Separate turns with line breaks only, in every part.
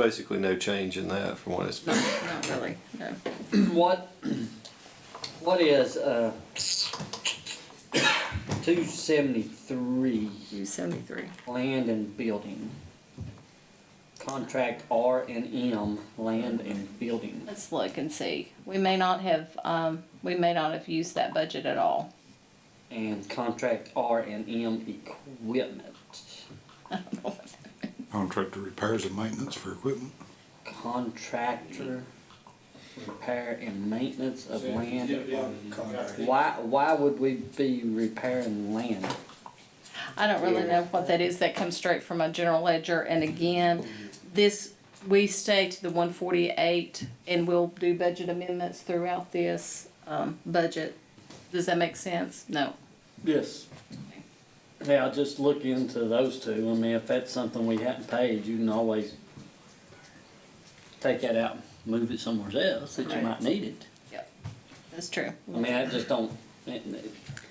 basically no change in that from what it's
No,
been.
not really, no.
What, what is, uh, two seventy-three
U seventy-three.
land and building? Contract R and M, land and building.
Let's look and see. We may not have, um, we may not have used that budget at all.
And contract R and M equipment.
Contractor repairs and maintenance for equipment.
Contractor repair and maintenance of land.
Contract.
Why, why would we be repairing land?
I don't really know what that is. That comes straight from my general ledger. And again, this, we stay to the one forty-eight and we'll do budget amendments throughout this, um, budget. Does that make sense? No.
Yes. Yeah, I'll just look into those two. I mean, if that's something we hadn't paid, you can always take that out and move it somewhere else that you might
Right.
need it.
That's true.
I mean, I just don't, it,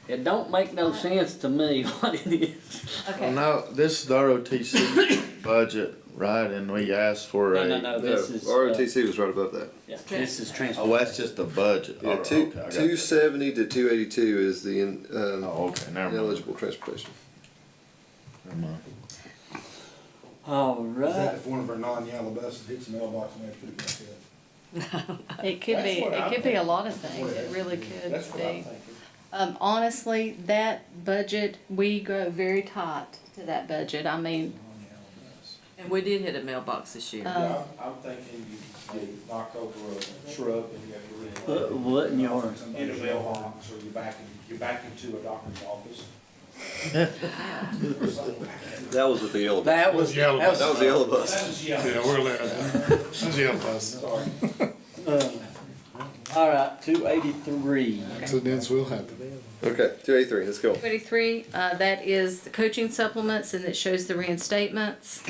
it don't make no sense to me what it is.
Well,
Okay.
no, this is the ROTC budget, right, and we asked for
No,
a.
no, no, this
No,
is, uh,
ROTC was right above that.
yeah, this is transfer.
Oh, that's just the budget.
Yeah,
Oh,
two,
okay, I got
two
you.
seventy to two eighty-two is the, in- um,
Oh, okay, never mind,
eligible transportation.
never mind.
All
Is that
right.
if one of our non-yellow buses hits the mailbox and they put it back up?
It could
That's
be,
what
it
I'm
could be a
thinking.
lot of things. It really could
That's what I'm
be.
thinking.
Um, honestly, that budget, we go very tight to that budget. I mean,
Non-yellow bus.
And we did hit a mailbox this year.
Uh, Um,
Yeah, I'm I'm thinking you, you knock over a shrub and you have
Uh.
to
What,
really.
what in your,
In a mailbox, or you back, in- you back into a doctor's office. Or something.
That was with the yellow.
that was, that
Yellow.
That was
was,
the yellow
That
bus.
was yellow.
Yeah, we're allowed. That's yellow bus.
Sorry.
all right, two eighty-three.
Accidents will happen.
Okay, two eighty-three, let's go.
Twenty-three, uh, that is the coaching supplements and it shows the reinstatements.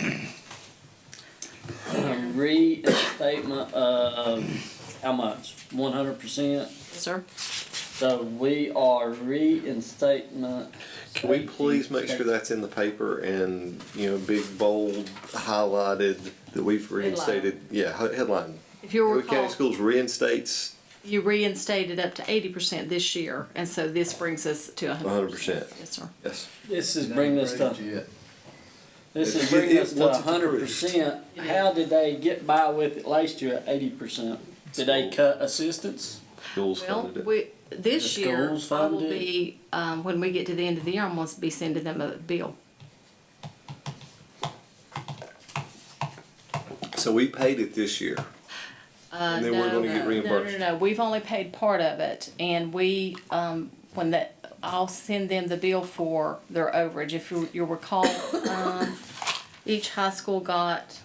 Restatement of, how much? One hundred percent?
Sir?
So we are reinstatement.
Can we please make sure that's in the paper and, you know, big, bold, highlighted, that we've reinstated? Yeah, he- headline.
If you
Howard County
recall,
Schools reinstates
you reinstated up to eighty percent this year, and so this brings us to hundred
100%.
Yes, sir.
Yes.
This is bringing us to, this is
If
bringing
it
us to
wants it to
hundred percent. How did they get by with it last year at eighty percent? Did they cut assistance?
Schools
Well,
funded it.
we, this
The
year,
schools
I will
funded it.
be, um, when we get to the end of the year, I'm gonna be sending them a bill.
So we paid it this year.
Uh,
And then we're
no,
gonna get
no,
reimbursed.
No, no, no, we've only paid part of it, and we, um, when that, I'll send them the bill for their overage, if you, you recall, um, each high school got,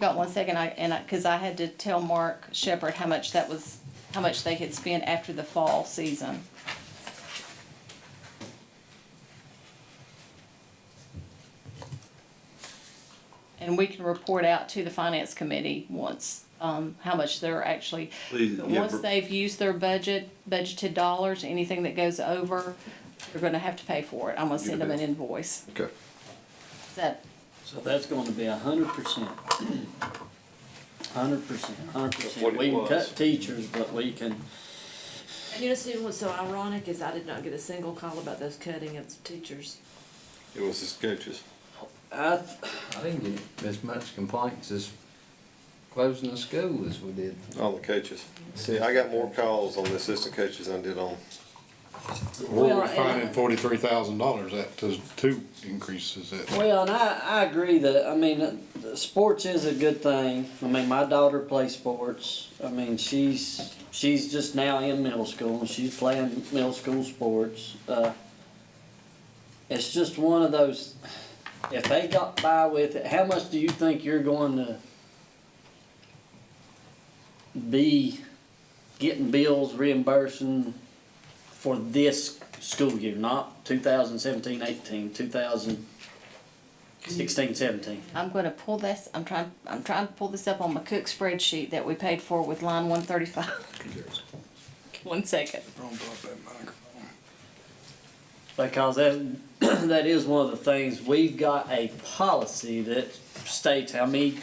got one second, I, and I, cause I had to tell Mark Shepherd how much that was, how much they could spend after the fall season. And we can report out to the finance committee once, um, how much they're actually,
Please, yeah,
once
br-
they've used their budget, budgeted dollars, anything that goes over, they're gonna have to pay for it. I'm gonna
Get a
send them an
bill.
invoice.
Okay.
Is that,
So that's gonna be hundred percent. Hundred percent, hundred
What
percent.
it
We can
was.
cut teachers, but we can,
And you know, see, what's so ironic is I did not get a single call about those cutting of teachers.
It was his coaches.
I, th-
I didn't get as much complaints as closing the school as we did.
All the coaches. See, I got more calls on the assistant coaches than I did on.
Well,
We're
and-
finding forty-three thousand dollars at to uh, two increases at.
Well, and I, I agree that, I mean, uh, sports is a good thing. I mean, my daughter plays sports. I mean, she's, she's just now in middle school and she's playing middle school sports. Uh, it's just one of those, if they got by with it, how much do you think you're going to be getting bills reimbursing for this school year, not 2017, 18, 2000, 16, 17.
I'm gonna pull this, I'm trying, I'm trying to pull this up on my cook spreadsheet that we paid for with line one thirty-five. One second.
Because that, that is one of the things, we've got a policy that states how many